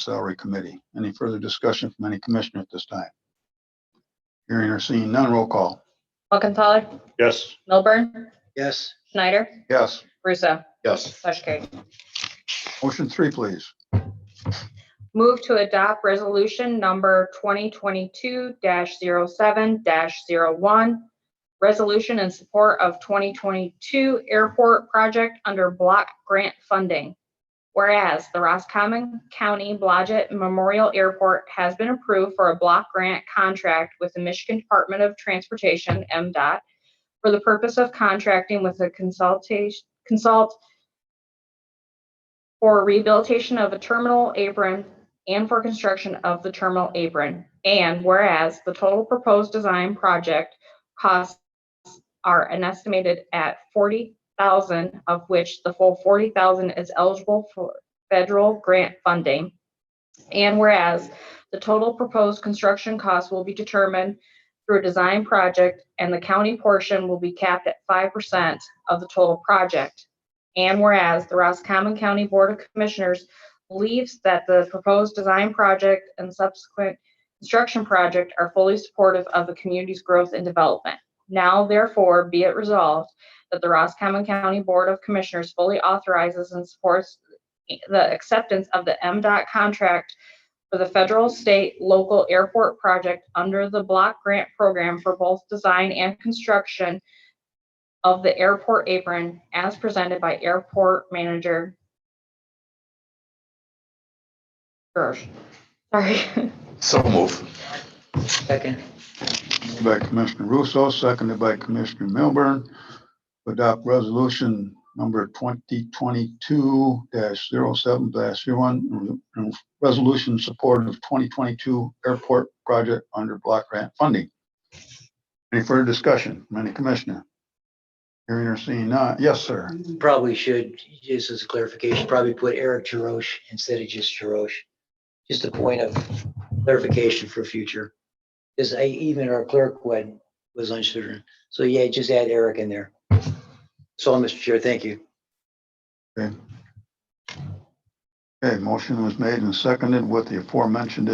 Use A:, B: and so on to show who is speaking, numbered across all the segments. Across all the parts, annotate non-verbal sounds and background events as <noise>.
A: Salary Committee. Any further discussion from any commissioner at this time? Hearing or seeing none, roll call.
B: Muckenthaler,
C: Yes.
B: Milburn,
D: Yes.
B: Schneider,
A: Yes.
B: Russo.
D: Yes.
B: Motion carried.
A: Motion three, please.
B: Move to adopt resolution number 2022-07-01, resolution in support of 2022 airport project under block grant funding. Whereas the Roscommon County Blodgett Memorial Airport has been approved for a block grant contract with the Michigan Department of Transportation, MDOT, for the purpose of contracting with a consultation, consult for rehabilitation of a terminal apron and for construction of the terminal apron. And whereas the total proposed design project costs are an estimated at forty thousand, of which the full forty thousand is eligible for federal grant funding. And whereas the total proposed construction cost will be determined through a design project and the county portion will be capped at five percent of the total project. And whereas the Roscommon County Board of Commissioners believes that the proposed design project and subsequent construction project are fully supportive of the community's growth and development. Now therefore be it resolved that the Roscommon County Board of Commissioners fully authorizes and supports the acceptance of the MDOT contract for the federal, state, local airport project under the block grant program for both design and construction of the airport apron as presented by airport manager. Gersh. Sorry. <laughs>
D: So move.
E: Second.
A: Moved By Commissioner Russo, seconded by Commissioner Milburn. to Adopt resolution number twenty twenty-two 7 one, resolution in support of twenty twenty-two airport project under block grant funding. Any further discussion from any commissioner? Hearing or seeing none, yes, sir.
D: Probably should, just as a clarification, probably put Eric Jeroche instead of just Jeroche. Just a point of clarification for future. Because I, even our clerk went, was uncertain. So yeah, just add Eric in there. So, Mr. Chair, thank you.
A: Okay, motion was made and seconded with the aforementioned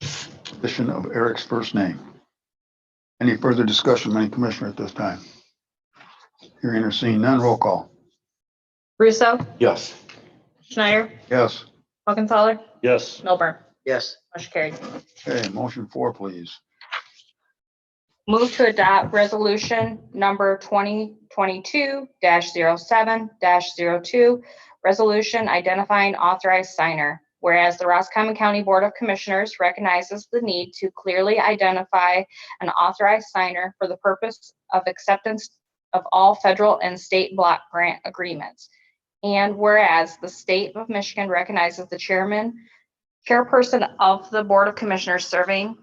A: addition of Eric's first name. Any further discussion, from any commissioner at this time? Hearing or seeing none, roll call.
B: Russo,
C: Yes.
B: Schneider,
A: Yes,
B: Muckenthaler,
C: Yes.
B: Milburn.
D: Yes.
B: Motion carried.
A: okay, motion four, please.
B: Move to adopt resolution number 2022-07-02, resolution identifying authorized signer. Whereas the Roscommon County Board of Commissioners recognizes the need to clearly identify an authorized signer for the purpose of acceptance of all federal and state block grant agreements. And whereas the state of Michigan recognizes the chairman, chairperson of the Board of Commissioners serving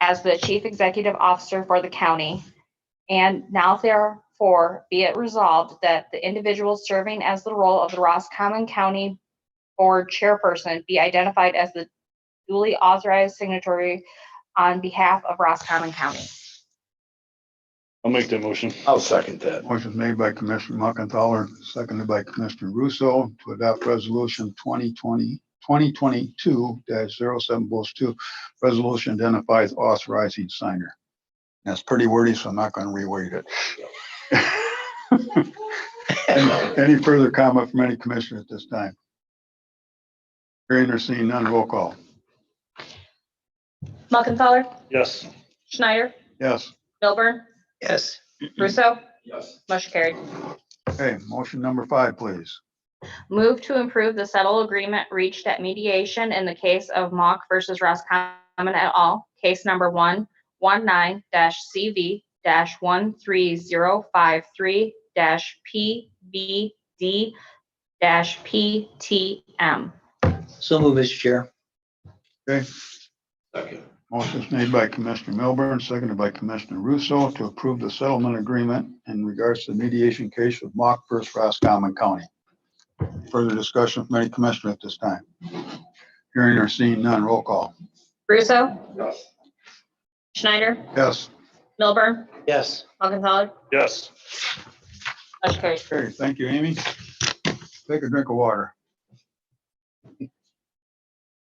B: as the chief executive officer for the county. And now therefore be it resolved that the individual serving as the role of the Roscommon County Board Chairperson be identified as the duly authorized signatory on behalf of Roscommon County.
C: I'll make that motion.
D: I'll second that.
A: Motion made by Commissioner Muckenthaler, seconded by Commissioner Russo to adopt resolution 2020, 2022-07-2. Resolution identifies authorizing signer. That's pretty wordy, so I'm not going to reword it. <laughs> Any any further comment from any commissioner at this time? Hearing or seeing none, roll call.
B: Muckenthaler,
C: Yes.
B: Schneider,
A: Yes.
B: Milburn,
D: Yes.
B: Russo,
D: Yes.
B: motion carried.
A: Okay, motion number five, please.
B: Move to improve the settle agreement reached at mediation in the case of Mock versus Roscommon et al., case number one one nine CV one three zero five three PVD PTM.
D: So move, Mr. Chair.
A: Motion is made by Commissioner Milburn, seconded by Commissioner Russo to approve the settlement agreement in regards to the mediation case of Mock versus Roscommon County. Further discussion from any commissioner at this time? Hearing or seeing none, roll call.
B: Russo? Schneider?
A: Yes.
B: Milburn?
D: Yes.
B: Muckenthaler?
C: Yes.
B: Motion carries.
A: Okay, thank you, Amy. Take a drink of water.